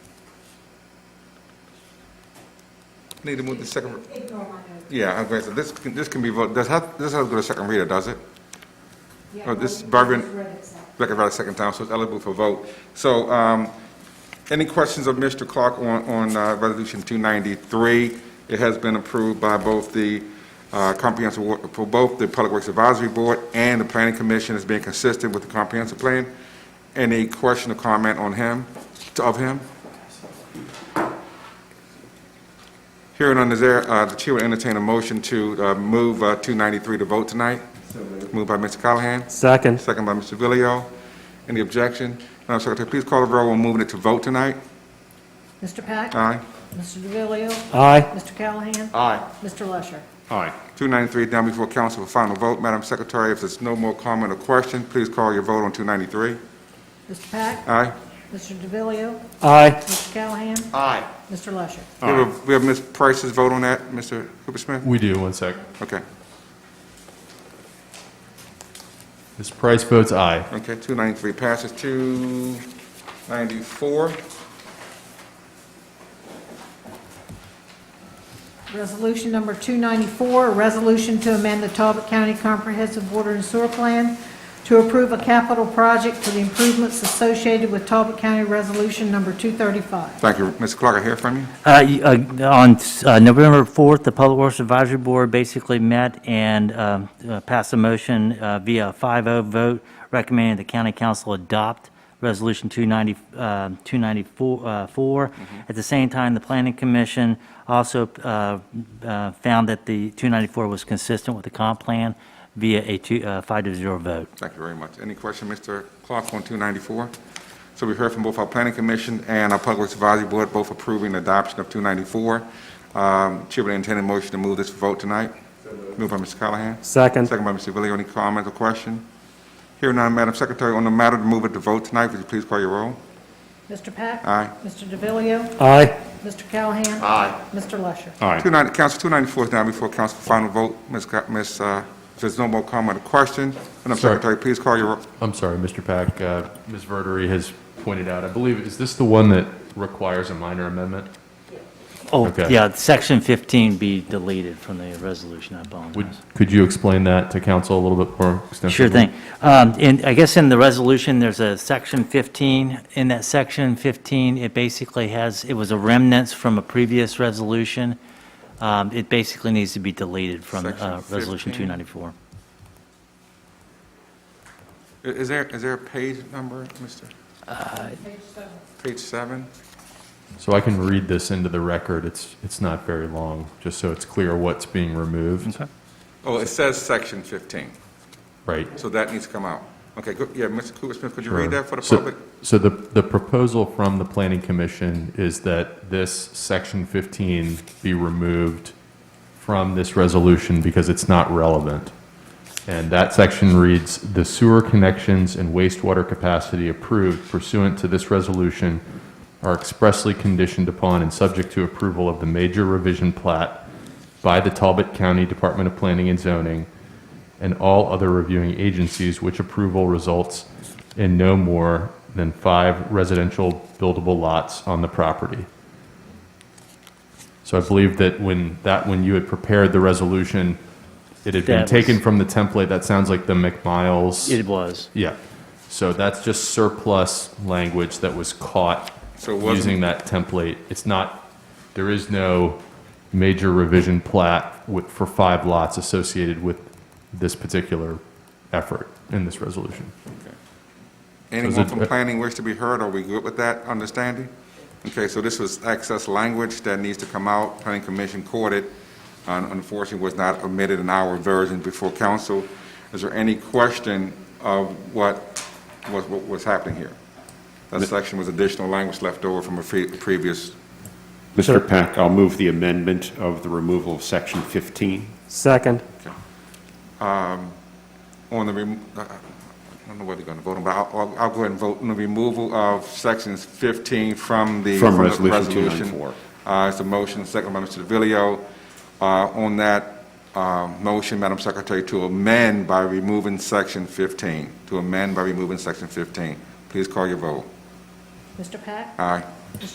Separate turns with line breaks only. Need to move the second,
Ignore my note.
yeah, I'm going to say, this, can- this can be voted, does have, this has to go to second reader, does it?
Yeah,
Oh, this
I just
Byron-
read it, so.
Like about a second time, so it's eligible for vote. So, um, any questions of Mr. Clark on, on, uh, Resolution 293? It has been approved by both the, uh, comprehensive, wa- for both the Public Works Advisory Board and the Planning Commission as being consistent with the comprehensive plan. Any question or comment on him, of him? Hearing on is there, uh, the chair will entertain a motion to, uh, move, uh, 293 to vote tonight. Moved by Mr. Callahan.
Second.
Second by Mr. Villio. Any objection? Madam Secretary, please call the roll. We're moving it to vote tonight.
Mr. Pack?
Aye.
Mr. DeVillio,
Aye.
Mr. Callahan?
Aye.
Mr. Lusher?
Aye.
293 down before council for final vote. Madam Secretary, if there's no more comment or question, please call your vote on 293.
Mr. Pack?
Aye.
Mr. DeVillio,
Aye.
Mr. Callahan?
Aye.
Mr. Lusher?
We have, we have Ms. Price's vote on that, Mr. Cooper Smith?
We do, one sec.
Okay,
Ms. Price votes aye.
okay, 293 passes. 294,
Resolution number 294, a resolution to amend the Talbot County Comprehensive Water and Sewer Plan to approve a capital project for the improvements associated with Talbot County Resolution number 235.
thank you. Mr. Clark, I hear from you.
Uh, y- uh, On uh, November 4th, the Public Works Advisory Board basically met and um, uh, passed a motion uh, via a 5-0 vote recommending the county council adopt Resolution 290 uh, 294. uh, four. At the same time, the planning commission also uh, uh, found that the 294 was consistent with the comp plan via a uh, 5-0 vote.
Thank you very much. Any question, Mr. Clark, on 294? So we heard from both our Planning Commission and our Public Works Advisory Board, both approving the adoption of 294. Um, Chair would entertain a motion to move this for vote tonight. Moved by Mr. Callahan.
Second.
Second by Mr. Villio. Any comment or question? Hearing none, Madam Secretary, on the matter to move it to vote tonight, would you please call your roll?
Mr. Pack?
Aye.
Mr. DeVillio,
Aye.
Mr. Callahan? Aye. Mr. Lusher?
Aye.
290 Council 294 is now before council for final vote. Ms. Ca- Ms., uh, If there's no more comment or question, Madam
Sorry.
Secretary, please call your roll.
I'm sorry, Mr. Pack, uh, Ms. Verdery has pointed out, I believe, is this the one that requires a minor amendment?
Oh,
Okay.
yeah, Section 15 be deleted from the resolution, I apologize.
Would, could you explain that to council a little bit more extensively?
Sure thing. Um, And I guess in the resolution, there's a section 15. In that section 15, it basically has, it was a remnants from a previous resolution. Um, It basically needs to be deleted from uh,
Section
Resolution
15.
294.
I- Is there, is there a page number, Mr.? Page seven?
So I can read this into the record. It's, it's not very long, just so it's clear what's being removed.
Oh, it says section 15,
Right.
so that needs to come out. Okay, good, yeah, Mr. Cooper Smith, could you read
Sure.
that for the
So-
public?
So the, the proposal from the planning commission is that this section 15 be removed from this resolution because it's not relevant. And that section reads, "The sewer connections and wastewater capacity approved pursuant to this resolution are expressly conditioned upon and subject to approval of the major revision plat by the Talbot County Department of Planning and Zoning and all other reviewing agencies, which approval results in no more than five residential buildable lots on the property. So I believe that when, that when you had prepared the resolution, it had
That
been
was-
taken from the template, that sounds like the McMiles.
It was.
Yeah. So that's just surplus language that was caught
So it wasn't-
using that template. It's not, there is no major revision plat with, for five lots associated with this particular effort in this resolution.
Anyone
it-
from planning wish to be heard, are we good with that understanding? Okay, so this was excess language that needs to come out, planning commission courted, unfortunately was not omitted in our version before council. Is there any question of what, was what was happening here? That section was additional language left over from a pre- previous,
Mr. Pack, I'll move the amendment of the removal of section 15.
Second.
on the, rem- uh, I don't know what they're going to vote on, but I'll- I'll, I'll go ahead and vote on the removal of sections 15 from the.
From
the
Resolution
resolution.
294.
Uh, It's a motion, second by Mr. DeVillio. Uh, On that uh, motion, Madam Secretary, to amend by removing section 15, to amend by removing section 15. Please call your vote.
Mr. Pack?
Aye.